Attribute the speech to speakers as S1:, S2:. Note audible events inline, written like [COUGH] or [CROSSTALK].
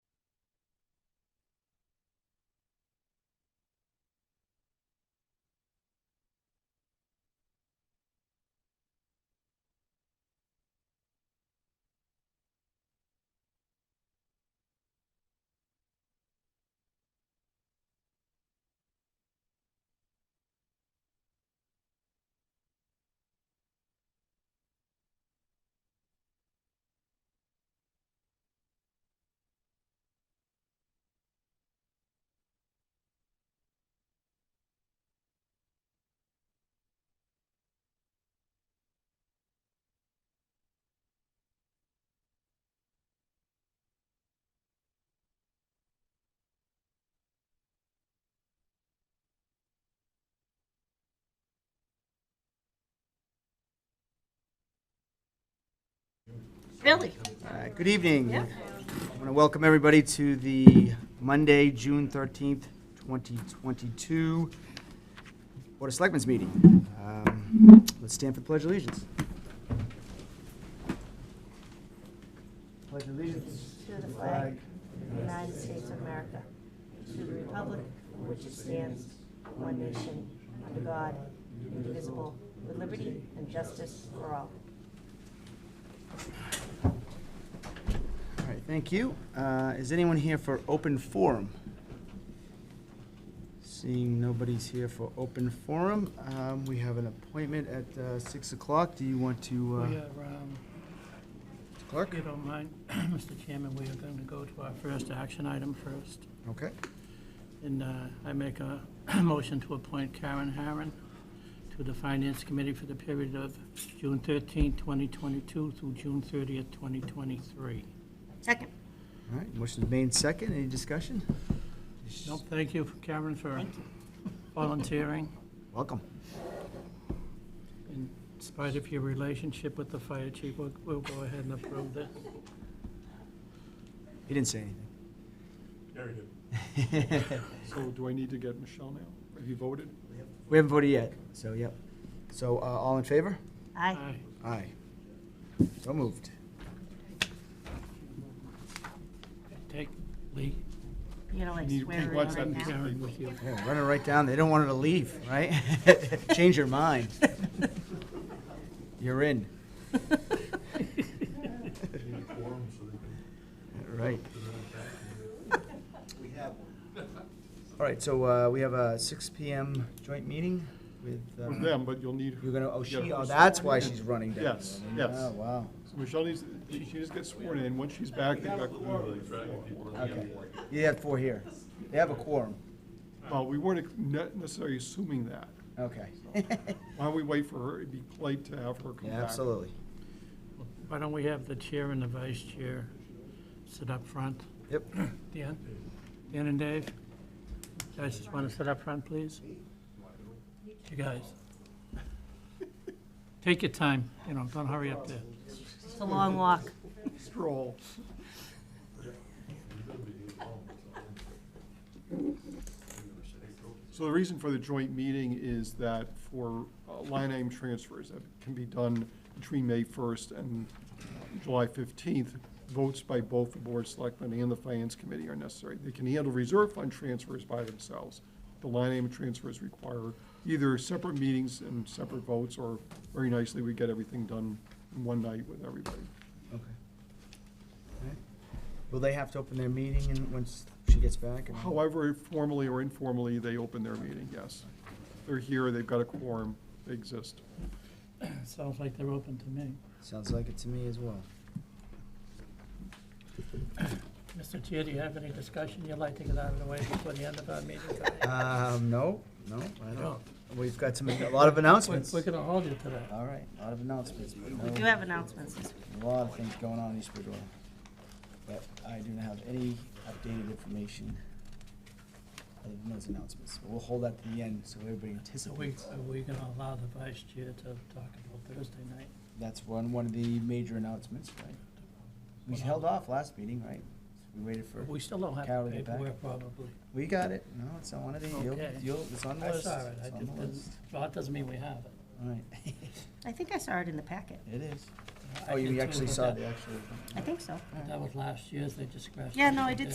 S1: Really?
S2: Uh, Good evening.
S1: Yeah.
S2: I want to welcome everybody to the Monday, June 13th, 2022 Board of Selectmen's meeting. Um, Let's stand for the Pledge of Allegiance. Pledge of Allegiance.
S1: To the flag of the United States of America, to the republic for which it stands, one nation, under God, indivisible, with liberty and justice for all.
S2: All right, thank you. Uh, Is anyone here for open forum? Seeing nobody's here for open forum, um, we have an appointment at uh, 6 o'clock. Do you want to, uh,
S3: We are, um, if
S2: Clerk?
S3: you don't mind, [CLEARS THROAT] Mr. Chairman, we are going to go to our first action item first.
S2: Okay.
S3: And uh, I make a [CLEARS THROAT] motion to appoint Karen Harron to the Finance Committee for the period of June 13, 2022 through June 30, 2023.
S1: Second.
S2: All right, motion's made second, any discussion?
S3: Nope, thank you, [LAUGHS] Karen, for volunteering,
S2: Welcome.
S3: in spite of your relationship with the fire chief, we'll we'll go ahead and approve that.
S2: He didn't say anything.
S4: Very good.
S2: [LAUGHS]
S4: [LAUGHS] So do I need to get Michelle now? Have you voted?
S2: We haven't voted yet, so, yep. So, uh, all in favor?
S1: Aye.
S3: Aye.
S2: Aye. So moved.
S3: Take Lee,
S1: You know, like
S4: Need-
S1: swear her
S4: what's
S1: in right
S4: that?
S1: now.
S3: Karen with [LAUGHS] you.
S2: Yeah, running right down, they don't want her to leave, right? [LAUGHS] Change your mind. You're in. Right. All right, so, uh, we have a six PM joint meeting with,
S4: With
S2: um,
S4: them, but you'll need,
S2: you're gonna, oh, she,
S4: Yeah.
S2: oh, that's why she's running down.
S4: Yes, yes.
S2: Oh, wow.
S4: so Michelle needs, she just gets sworn in, once she's back, they got.
S2: Okay. You had four here. They have a quorum.
S4: Well, we weren't ne- necessarily assuming that.
S2: Okay.
S4: Why don't we wait for her, it'd be polite to have her come back.
S2: Yeah, absolutely.
S3: [LAUGHS] Why don't we have the chair and the vice chair sit up front?
S2: Yep.
S3: Dan? Dan and Dave? Guys, just want to sit up front, please? You guys. Take your time, you know, don't hurry up there.
S1: [LAUGHS] It's a long walk.
S4: Stroll. So the reason for the joint meeting is that for uh, line item transfers that can be done between May 1st and uh, July 15th, votes by both the Board of Selectmen and the Finance Committee are necessary. They can handle reserve fund transfers by themselves. The line item transfers require either separate meetings and separate votes, or very nicely, we get everything done in one night with everybody.
S2: Okay. Will they have to open their meeting and once she gets back? and-
S4: However, formally or informally, they open their meeting, yes. They're here, they've got a quorum, they exist.
S3: Sounds like they're open to me.
S2: Sounds like it to me as well.
S3: Mr. Chair, do you have any discussion you'd like to get out of the way before the end of our meeting?
S2: Um, no, no, I
S3: No.
S2: don't. We've got some, a lot of announcements.
S3: [LAUGHS] We're going to hold you to that.
S2: All right, a lot of announcements. but
S1: We
S2: no-
S1: do have announcements this week.
S2: A lot of things going on in East Bridgewater. But I do not have any updated information other than those announcements. We'll hold that to the end so everybody
S3: Are we,
S2: anticipates.
S3: are we going to allow the vice chair to talk about Thursday night?
S2: That's one, one of the major announcements, right? We held off last meeting, right? We waited for,
S3: We still don't have
S2: Carol,
S3: the
S2: get back.
S3: paperwork probably.
S2: we got it. No, it's on one of the, you'll,
S3: Okay.
S2: you'll, it's on the
S3: I
S2: list.
S3: saw it, I
S2: It's on the
S3: just didn't,
S2: list.
S3: well, that doesn't mean we have it.
S2: All right. [LAUGHS]
S1: I think I saw it in the packet.
S2: It is.
S3: I
S2: Oh, you
S3: did too,
S2: actually
S3: but
S2: saw
S3: that-
S2: the actual.
S1: I think so.
S3: That was last year's, they just scratched.
S1: Yeah,
S3: it
S1: no, I
S3: and
S1: did